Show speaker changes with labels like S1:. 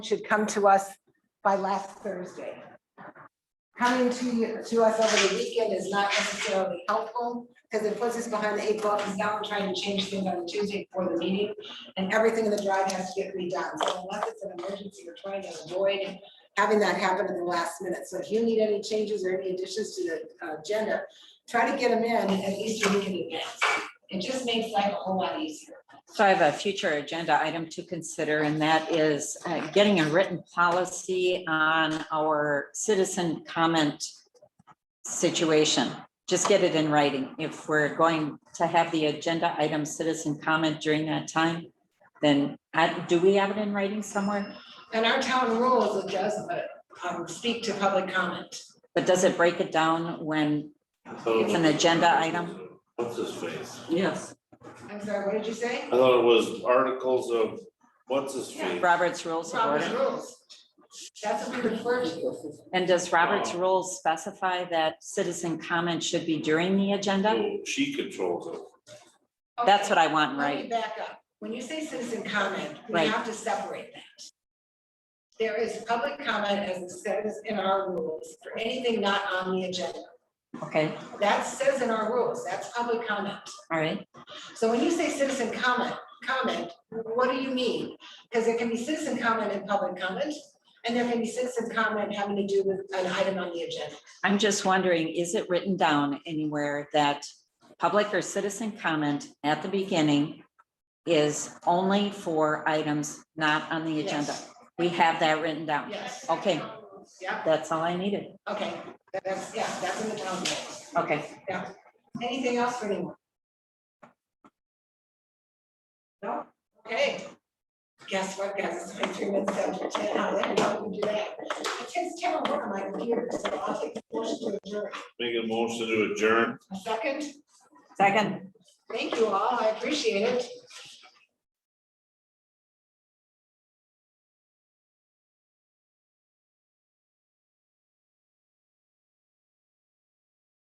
S1: should come to us by last Thursday. Coming to, to us over the weekend is not necessarily helpful because it puts us behind the eight ball because now we're trying to change things on Tuesday before the meeting and everything in the drive has to get redone. So unless it's an emergency, we're trying to avoid having that happen at the last minute. So if you need any changes or any additions to the uh, agenda, try to get them in at least a week in advance. It just makes life a whole lot easier.
S2: So I have a future agenda item to consider, and that is uh, getting a written policy on our citizen comment situation. Just get it in writing. If we're going to have the agenda item citizen comment during that time, then I- do we have it in writing somewhere?
S1: And our town rules, it does, but um, speak to public comment.
S2: But does it break it down when,
S1: It's
S2: an agenda item?
S3: What's his face?
S4: Yes,
S1: I'm sorry, what did you say?
S3: I thought it was articles of, what's his face?
S2: Robert's Rules of
S1: Robert's
S2: Order?
S1: rules. That's what we refer to.
S2: And does Robert's
S3: Oh.
S2: Rules specify that citizen comment should be during the agenda?
S3: Oh, She controls it.
S2: That's what I want,
S1: Let me
S2: right?
S1: back up. When you say citizen comment, we
S2: Right.
S1: have to separate that. There is public comment as it says in our rules for anything not on the agenda.
S2: Okay,
S1: That says in our rules, that's public comment.
S2: all right.
S1: So when you say citizen comment, comment, what do you mean? Because there can be citizen comment and public comment, and there can be citizen comment having to do with an item on the agenda.
S2: I'm just wondering, is it written down anywhere that public or citizen comment at the beginning is only for items not on the agenda?
S1: Yes.
S2: We have that written down.
S1: Yes,
S2: Okay,
S1: yeah,
S2: that's all I needed.
S1: okay, that's, yeah, that's in the town rules.
S2: Okay,
S1: Anything else for anyone? No? Okay. Guess what, guys, it's like three minutes after ten, how the hell did you do that? It takes terrible work on my computer, so I'll take the motion to adjourn.
S3: Make a motion to adjourn.
S1: A second?
S2: second.
S1: Thank you all, I appreciate it.